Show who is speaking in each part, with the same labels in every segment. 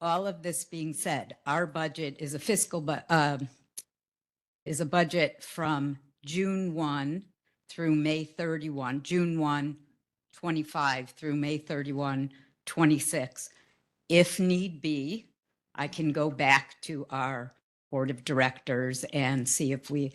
Speaker 1: all of this being said, our budget is a fiscal, bu- um, is a budget from June 1 through May 31, June 1, 25 through May 31, 26. If need be, I can go back to our board of directors and see if we,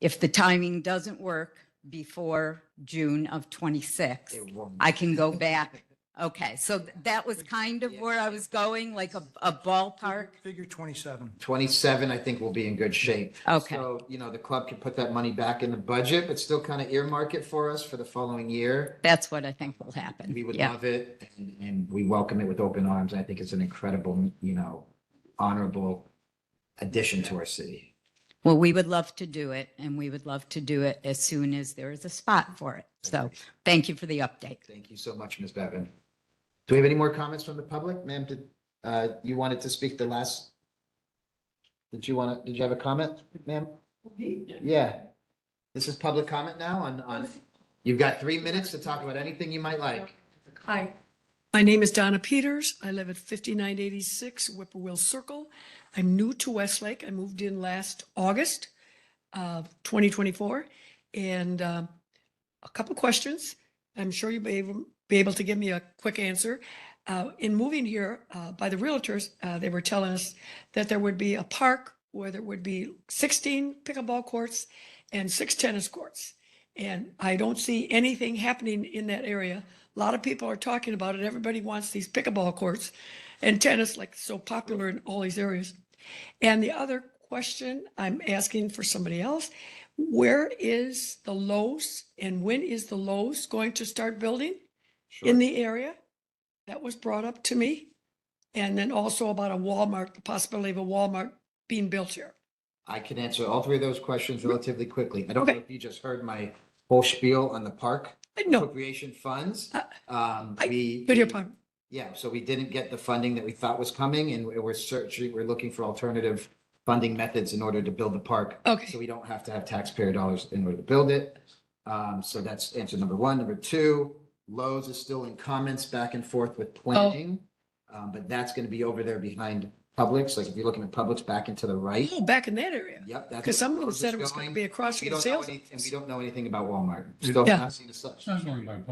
Speaker 1: if the timing doesn't work before June of 26, I can go back. Okay, so th- that was kind of where I was going, like a, a ballpark.
Speaker 2: Figure 27.
Speaker 3: 27, I think, will be in good shape.
Speaker 1: Okay.
Speaker 3: So, you know, the club can put that money back in the budget, but still kind of earmark it for us for the following year.
Speaker 1: That's what I think will happen.
Speaker 3: We would
Speaker 1: Yeah.
Speaker 3: love it and, and we welcome it with open arms. I think it's an incredible, you know, honorable addition to our city.
Speaker 1: Well, we would love to do it and we would love to do it as soon as there is a spot for it. So thank you for the update.
Speaker 3: Thank you so much, Ms. Bevan. Do we have any more comments from the public? Ma'am, did, uh, you wanted to speak the last? Did you want to, did you have a comment, ma'am? Yeah. This is public comment now on, on, you've got three minutes to talk about anything you might like.
Speaker 4: Hi, my name is Donna Peters. I live at 5986 Whippoorwill Circle. I'm new to Westlake. I moved in last August of 2024. And um, a couple questions. I'm sure you'll be able, be able to give me a quick answer. Uh, In moving here, uh, by the realtors, uh, they were telling us that there would be a park where there would be 16 pickleball courts and six tennis courts. And I don't see anything happening in that area. A lot of people are talking about it. Everybody wants these pickleball courts and tennis, like so popular in all these areas. And the other question I'm asking for somebody else, where is the Lowe's and when is the Lowe's going to start building in the area? That was brought up to me. And then also about a Walmart, the possibility of a Walmart being built here.
Speaker 3: I can answer all three of those questions relatively quickly. I don't know
Speaker 4: Okay.
Speaker 3: if you just heard my whole spiel on the park
Speaker 4: I know,
Speaker 3: appropriation funds.
Speaker 4: Uh,
Speaker 3: Um,
Speaker 4: I-
Speaker 3: we.
Speaker 4: video pump.
Speaker 3: Yeah, so we didn't get the funding that we thought was coming and we- we're searching, we're looking for alternative funding methods in order to build the park. So
Speaker 4: Okay,
Speaker 3: we don't have to have taxpayer dollars in order to build it. Um, so that's answer number one. Number two, Lowe's is still in comments back and forth
Speaker 4: Oh.
Speaker 3: with planning. Um, but that's gonna be over there behind Publix, like if you're looking at Publix back into the right.
Speaker 4: oh, back in that area.
Speaker 3: Yep. that's
Speaker 4: Because
Speaker 3: where
Speaker 4: some of them
Speaker 3: Lowe's is
Speaker 4: said it was going to be across
Speaker 3: We
Speaker 4: from the
Speaker 3: don't know
Speaker 4: sales.
Speaker 3: any, and we don't know anything about Walmart. Still
Speaker 4: Yeah.
Speaker 3: not seen a such.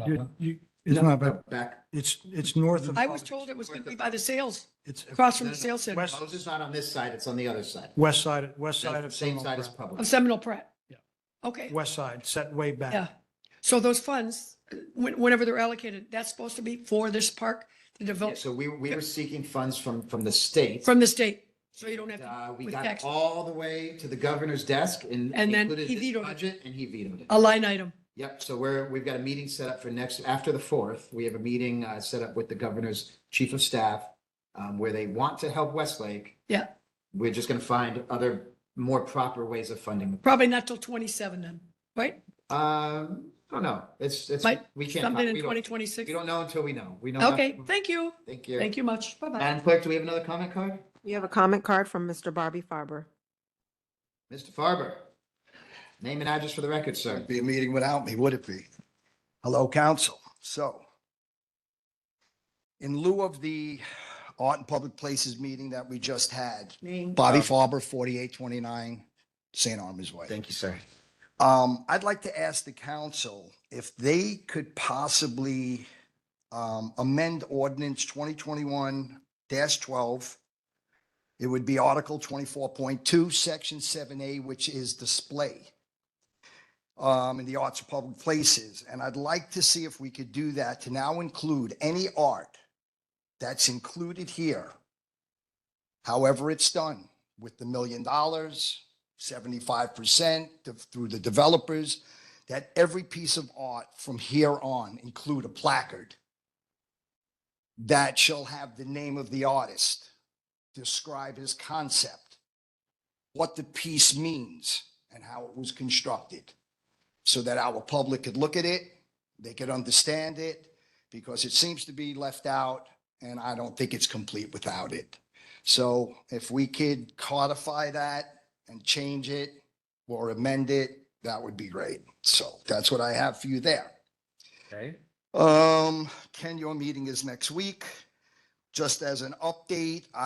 Speaker 2: You- you- It's not, but
Speaker 3: Back.
Speaker 2: it's, it's north of,
Speaker 4: I was told it was going to be by the sales,
Speaker 2: it's
Speaker 4: across from
Speaker 3: No,
Speaker 4: the
Speaker 3: no,
Speaker 4: sales center
Speaker 2: west,
Speaker 3: Lowe's is not on this side, it's on the other side.
Speaker 2: west side, west side of.
Speaker 3: Same side as
Speaker 2: Seminole
Speaker 4: of
Speaker 3: Publix.
Speaker 4: Seminole Pratt.
Speaker 2: Yeah.
Speaker 4: Okay.
Speaker 2: Prep. West side, set way back.
Speaker 4: Yeah. So those funds, when- whenever they're allocated, that's supposed to be for this park, the
Speaker 3: Yeah,
Speaker 4: develop,
Speaker 3: So we, we were seeking funds from, from the state.
Speaker 4: from the state. So you don't have to,
Speaker 3: Uh, we
Speaker 4: with
Speaker 3: got
Speaker 4: tax-
Speaker 3: all the way to the governor's desk and.
Speaker 4: And then
Speaker 3: included
Speaker 4: he
Speaker 3: this
Speaker 4: vetoed it.
Speaker 3: Budget and he vetoed it.
Speaker 4: a line item.
Speaker 3: Yep, so we're, we've got a meeting set up for next, after the fourth, we have a meeting, uh, set up with the governor's chief of staff, um, where they want to help Westlake.
Speaker 4: Yeah.
Speaker 3: We're just gonna find other more proper ways of funding.
Speaker 4: Probably not till 27 then, right?
Speaker 3: Um, I don't know, it's, it's,
Speaker 4: Might-
Speaker 3: we can't. talk-
Speaker 4: Something in
Speaker 3: we don't- We
Speaker 4: 2026.
Speaker 3: don't know until we know. We know.
Speaker 4: Okay,
Speaker 3: nothing.
Speaker 4: thank you.
Speaker 3: Thank you.
Speaker 4: Thank you much. Bye-bye.
Speaker 3: Madam Clerk, do we have another comment card?
Speaker 5: We have a comment card from Mr. Bobby Farber.
Speaker 3: Mr. Farber, name and address for the record, sir.
Speaker 6: It'd be a meeting without me, would it be? Hello, council. So in lieu of the Art and Public Places meeting that we just had, Bobby Farber, 4829 St. Armor's Way.
Speaker 3: Thank you, sir.
Speaker 6: Um, I'd like to ask the council if they could possibly um, amend ordinance twenty twenty-one twelve. It would be Article twenty-four point two, Section seven A, which is display um, in the arts of public places. And I'd like to see if we could do that to now include any art that's included here. However, it's done with the million dollars, seventy-five percent through the developers, that every piece of art from here on include a placard that shall have the name of the artist, describe his concept, what the piece means, and how it was constructed, so that our public could look at it, they could understand it, because it seems to be left out, and I don't think it's complete without it. So if we could codify that and change it or amend it, that would be great. So that's what I have for you there.
Speaker 3: Okay.
Speaker 6: Um, Ken, your meeting is next week. Just as an update,